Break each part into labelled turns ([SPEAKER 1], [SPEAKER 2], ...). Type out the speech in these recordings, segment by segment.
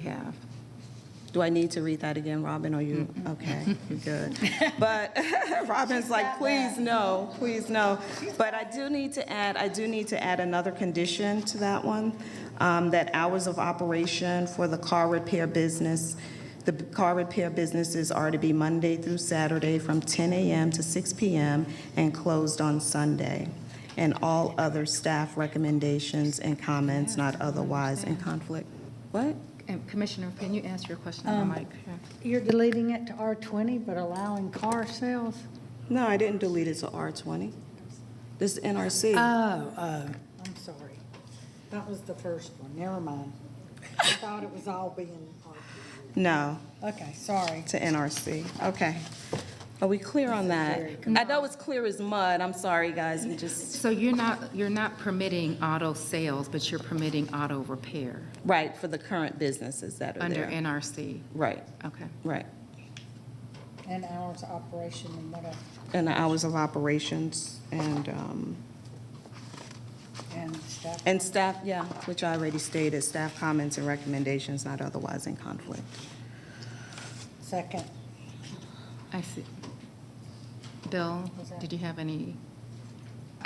[SPEAKER 1] have. Do I need to read that again, Robin, Are you, okay, you're good. But Robin's like, please no, please no. But I do need to add, I do need to add another condition to that one, um, that hours of operation for the car repair business, the car repair businesses are to be Monday through Saturday from 10 a.m. to 6 p.m. and closed on Sunday. And all other staff recommendations and comments not otherwise in conflict. What?
[SPEAKER 2] And Commissioner, can you answer your question on the mic?
[SPEAKER 3] You're deleting it to R20, but allowing car sales?
[SPEAKER 1] No, I didn't delete it to R20. This is NRC.
[SPEAKER 3] Oh, oh. I'm sorry. That was the first one, never mind. I thought it was all being
[SPEAKER 1] No,
[SPEAKER 3] R20. Okay, sorry.
[SPEAKER 1] to NRC. Okay. Are we clear on that? I know it's clear as mud. I'm sorry, guys. We just,
[SPEAKER 2] So you're not, you're not permitting auto sales, but you're permitting auto repair
[SPEAKER 1] right, for the current businesses that are
[SPEAKER 2] under
[SPEAKER 1] there.
[SPEAKER 2] NRC?
[SPEAKER 1] Right,
[SPEAKER 2] Okay.
[SPEAKER 1] right.
[SPEAKER 3] And hours of operation and what else?
[SPEAKER 1] And the hours of operations and, um,
[SPEAKER 3] and stuff.
[SPEAKER 1] and staff, yeah, which I already stated, staff comments and recommendations not otherwise in conflict.
[SPEAKER 3] Second,
[SPEAKER 2] I see. Bill, did you have any?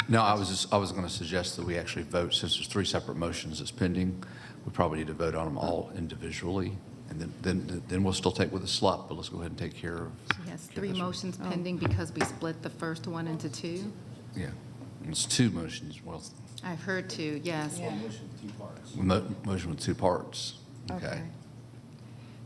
[SPEAKER 4] No, I was just, I was going to suggest that we actually vote, since there's three separate motions that's pending, we probably need to vote on them all individually, and then, then, then we'll still take with a slot, but let's go ahead and take care of,
[SPEAKER 2] She has three motions pending because we split the first one into two?
[SPEAKER 4] yeah. It's two motions, well,
[SPEAKER 2] I've heard two, yes.
[SPEAKER 3] yeah.
[SPEAKER 4] mo- motion with two parts, okay?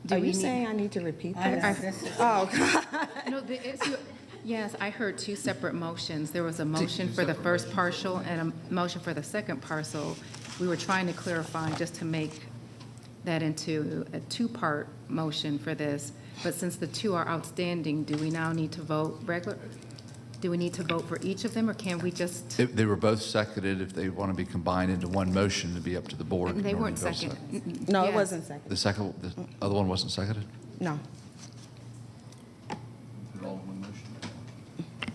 [SPEAKER 2] Do
[SPEAKER 1] Are
[SPEAKER 2] we
[SPEAKER 1] you
[SPEAKER 2] need-
[SPEAKER 1] saying I Oh, need to repeat
[SPEAKER 3] I
[SPEAKER 1] that?
[SPEAKER 3] know, this is-
[SPEAKER 2] No, the issue, yes, I heard two separate motions. There was a motion for the first partial and a motion for the second parcel. We were trying to clarify just to make that into a two-part motion for this. But since the two are outstanding, do we now need to vote regular? Do we need to vote for each of them, or can we just?
[SPEAKER 4] If they were both seconded, if they want to be combined into one motion, it'd be up to the board.
[SPEAKER 2] They
[SPEAKER 4] Norman
[SPEAKER 2] weren't
[SPEAKER 4] Bill's
[SPEAKER 2] second. Mm-mm.
[SPEAKER 1] No, it
[SPEAKER 2] Yes.
[SPEAKER 1] wasn't second.
[SPEAKER 4] The second, the other one wasn't seconded?
[SPEAKER 1] No.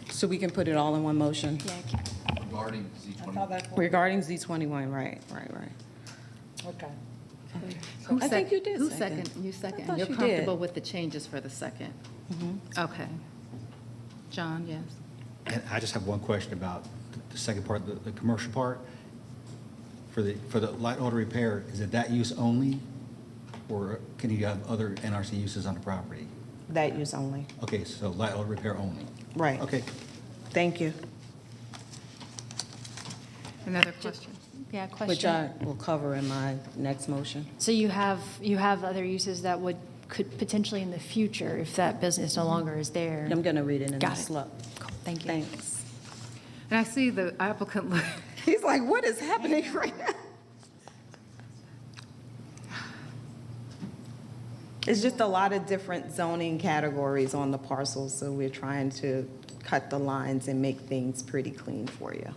[SPEAKER 1] So we can put it all in one motion?
[SPEAKER 2] Yeah, I can-
[SPEAKER 4] Regarding Z
[SPEAKER 3] I thought that's what,
[SPEAKER 1] Regarding Z21, right, right, right.
[SPEAKER 3] okay.
[SPEAKER 2] who
[SPEAKER 1] I think
[SPEAKER 2] sec-
[SPEAKER 1] you did
[SPEAKER 2] Who
[SPEAKER 1] second.
[SPEAKER 2] second? You second.
[SPEAKER 1] thought
[SPEAKER 2] You're
[SPEAKER 1] you did. Mm-hmm.
[SPEAKER 2] comfortable with the changes for the second? Okay. John, yes?
[SPEAKER 5] And I just have one question about the second part, the, the commercial part. For the, for the light auto repair, is it that use only? Or can you have other NRC uses on the property?
[SPEAKER 1] That use only.
[SPEAKER 5] Okay, so light auto repair only?
[SPEAKER 1] Right.
[SPEAKER 5] Okay,
[SPEAKER 1] Thank you,
[SPEAKER 2] Another question?
[SPEAKER 6] Yeah, question.
[SPEAKER 1] which I will cover in my next motion.
[SPEAKER 6] uh, So you have, you have other uses that would, could potentially in the future, if that business no longer is there?
[SPEAKER 1] I'm going to read it in the
[SPEAKER 6] Got it.
[SPEAKER 1] slip.
[SPEAKER 6] Cool, Thank you.
[SPEAKER 1] Thanks.
[SPEAKER 2] And I see the applicant, look-
[SPEAKER 1] He's like, what is happening right now? It's just a lot of different zoning categories on the parcels, so we're trying to cut the lines and make things pretty clean for you.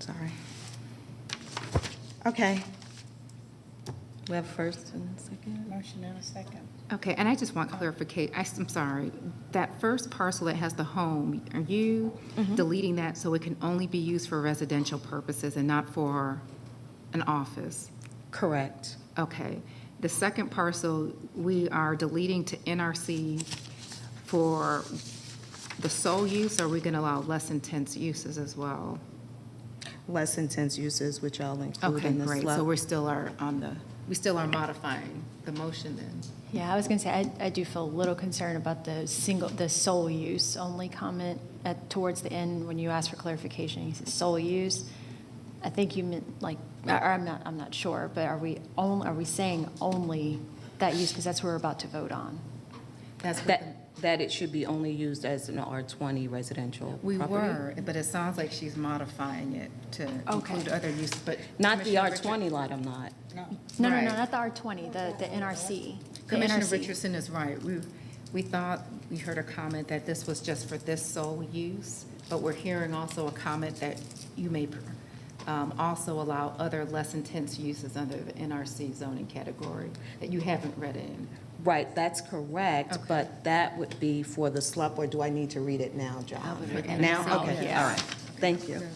[SPEAKER 1] Sorry. Okay. We have first and second?
[SPEAKER 3] Motion and a second.
[SPEAKER 2] okay, and I just want clarification, I'm sorry, that first parcel that has the home, are you
[SPEAKER 1] Mm-hmm.
[SPEAKER 2] deleting that so it can only be used for residential purposes and not for an office?
[SPEAKER 1] Correct.
[SPEAKER 2] Okay. The second parcel, we are deleting to NRC for the sole use, or are we going to allow less intense uses as well?
[SPEAKER 1] Less intense uses, which I'll include
[SPEAKER 2] Okay,
[SPEAKER 1] in the
[SPEAKER 2] great, so
[SPEAKER 1] SLUP.
[SPEAKER 2] we're still are on the, we still are modifying the motion then?
[SPEAKER 6] Yeah, I was going to say, I, I do feel a little concerned about the single, the sole use only comment at, towards the end when you asked for clarification. You said sole use. I think you meant like, or I'm not, I'm not sure, but are we only, are we saying only that use? Because that's what we're about to vote on.
[SPEAKER 2] That's what the-
[SPEAKER 1] That, that it should be only used as an R20 residential
[SPEAKER 2] We
[SPEAKER 1] property.
[SPEAKER 2] were, but it sounds like she's modifying it to
[SPEAKER 6] Okay.
[SPEAKER 2] include other uses, but.
[SPEAKER 1] Not the
[SPEAKER 2] Commissioner Richard-
[SPEAKER 1] R20 lot, I'm not.
[SPEAKER 6] No, no, no,
[SPEAKER 2] Right.
[SPEAKER 6] not the R20, the, the NRC. the
[SPEAKER 2] Commissioner
[SPEAKER 6] NRC.
[SPEAKER 2] Richardson is right. We, we thought, we heard a comment that this was just for this sole use, but we're hearing also a comment that you may um, also allow other less intense uses under the NRC zoning category that you haven't read in.
[SPEAKER 1] Right, that's correct,
[SPEAKER 2] Okay.
[SPEAKER 1] but that would be for the SLUP, or do I need to read it now, John?
[SPEAKER 2] would read it
[SPEAKER 1] Now,
[SPEAKER 2] now.
[SPEAKER 1] okay, all
[SPEAKER 2] Yeah.
[SPEAKER 1] right. Thank you.